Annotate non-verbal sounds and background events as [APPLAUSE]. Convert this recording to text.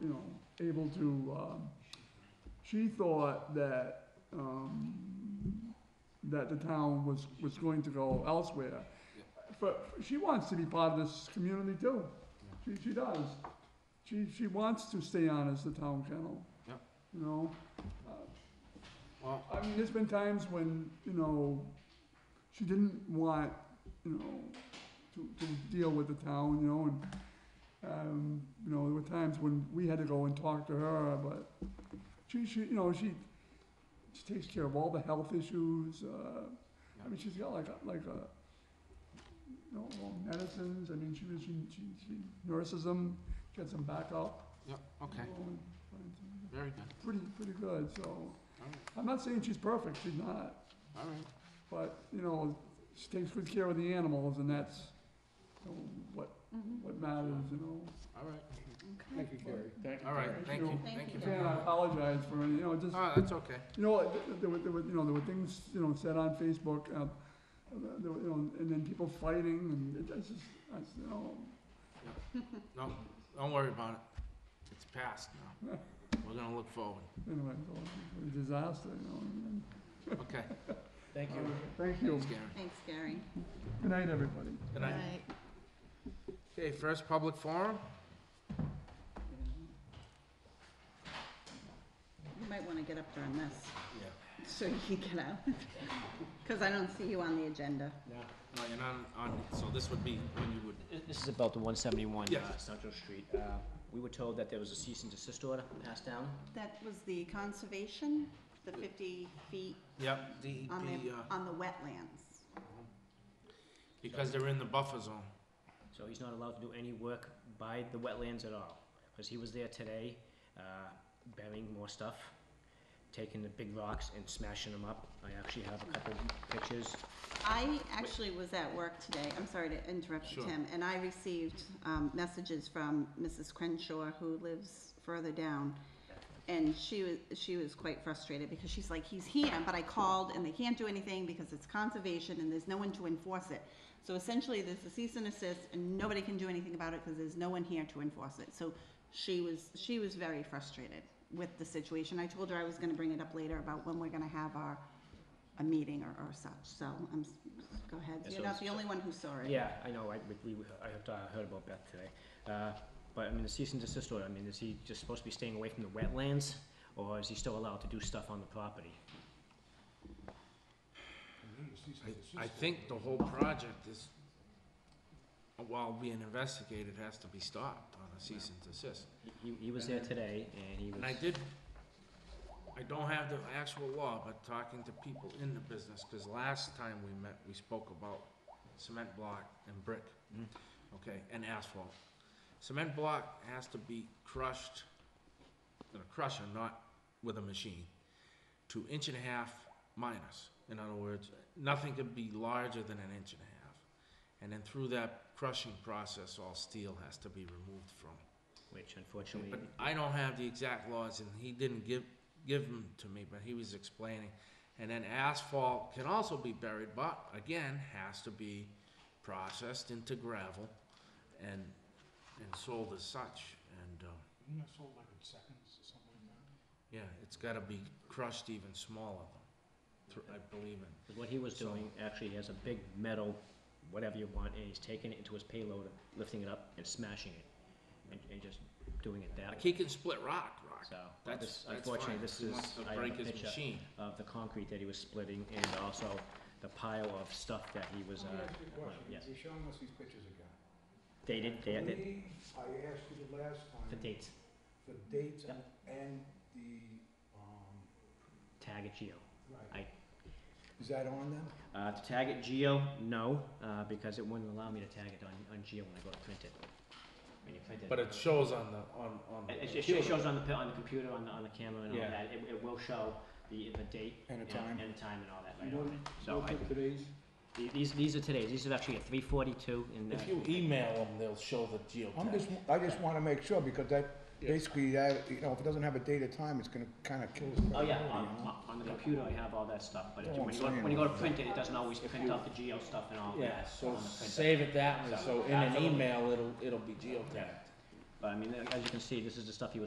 you know, able to, um, she thought that, um, that the town was, was going to go elsewhere. But she wants to be part of this community too. She, she does. She, she wants to stay on as the town kennel. Yeah. You know? Well, I mean, there's been times when, you know, she didn't want, you know, to, to deal with the town, you know, and, um, you know, there were times when we had to go and talk to her, but she, she, you know, she, she takes care of all the health issues, uh, I mean, she's got like, a- like a, you know, all medicines, I mean, she, was- she, she, she nurses them, gets them back up. yeah, okay, you know, and finds them very good, Pretty, pretty good, so. all right, I'm not saying she's perfect, she's not, all right. but, you know, she takes good care of the animals, and that's you know, what, Mm-hmm. what matters, you know? All right, Thank you, Gary. Thank you. all right, Gary. thank you. you, Thank thank you. you. Again, I apologize for, you know, just, Oh, that's okay. you know, th- th- there were, there were, you know, there were things, you know, said on Facebook, um, there were, you know, and then people fighting, and it- it's just, I, s- you know, No, don't worry about it. It's past now. We're gonna look forward. anyway, it was a disaster, you know? and- Okay, Thank you. Thank you. thanks, Gary. Thanks, Gary. Good night, everybody. Good night. Okay, first public forum? You might wanna get up during this, Yeah. so you can get out, [LAUGHS] cause I don't see you on the agenda. No, you're not on, so this would be when you would, This is about the one seventy-one, uh, Yes. Central Street. Uh, we were told that there was a cease and desist order passed down. That was the conservation, the fifty feet yep, DEP, on the, uh, on the wetlands. because they're in the buffer zone. So he's not allowed to do any work by the wetlands at all, because he was there today, uh, burying more stuff, taking the big rocks and smashing them up. I actually have a couple pictures. I actually was at work today, I'm sorry to interrupt you, Sure. Tim, and I received, um, messages from Mrs. Crenshaw, who lives further down. And she was, she was quite frustrated, because she's like, he's here, but I called and they can't do anything because it's conservation and there's no one to enforce it. So essentially, there's a cease and assist, and nobody can do anything about it, because there's no one here to enforce it, so she was, she was very frustrated with the situation. I told her I was gonna bring it up later about when we're gonna have our a meeting or, or such, so I'm, s- go ahead, Yeah, you're so not it's- the only one who saw it. Yeah, I know, I, we, we- I had, uh, heard about that today. Uh, but I mean, the cease and desist order, I mean, is he just supposed to be staying away from the wetlands? Or is he still allowed to do stuff on the property? I, I think the whole project is, while being investigated, has to be stopped on a cease and desist. He, he was there today and he was. And I did, I don't have the actual law, but talking to people in the business, because last time we met, we spoke about cement block and brick, Mhm. okay, and asphalt. Cement block has to be crushed, in a crusher, not with a machine, to inch and a half minus. In other words, nothing could be larger than an inch and a half. And then through that crushing process, all steel has to be removed from Which unfortunately, but I don't have the exact laws, and he didn't give, give them to me, but he was explaining. And then asphalt can also be buried, but again, has to be processed into gravel and, and sold as such. And, um, Isn't that sold like in seconds or something like that? yeah, it's gotta be crushed even smaller, thr- I believe in. what he was So- doing, actually, he has a big metal, whatever you want, and he's taking it into his payload, lifting it up and smashing it, and, and just doing it that Like, way. he can split rock, rock. So, That's, but this, that's unfortunately, fine. this He is, wants to I have a break his picture machine. of the concrete that he was splitting, and also the pile of stuff that he was, uh, applying. yes, You're showing us these pictures again. dated, I dated, believe I asked you the last the time, dates, the dates Yep. and the, um, tag it geo. right. I- Is that on them? Uh, to tag it geo, no, uh, because it wouldn't allow me to tag it on, on geo when I go to print it. When you print it. But it shows on the, on, on. the It, it- it computer. shows on the, pi- on the computer, on the, on the camera and all Yeah. that, it, it will show the, the date. And the time. And the time and all that You right on don't- it, so I, today's? the- these, these are today's, these are actually at three forty-two in the. If you email them, they'll show the geotag. I'm uh, just, I just wanna make sure because that, Yeah. basically, that, you know, if it doesn't have a date or time, it's gonna kinda kill us. Oh, yeah, on, on- on the computer I have all that stuff, but if Oh, you- when Yeah, you go, I'm when you go to saying. print it, it doesn't always print out the geo stuff and all that. Yeah, so on the printer. save it that way, so in an Absolutely. email, it'll, it'll be geotagged. But I mean, as you can see, this is the stuff he was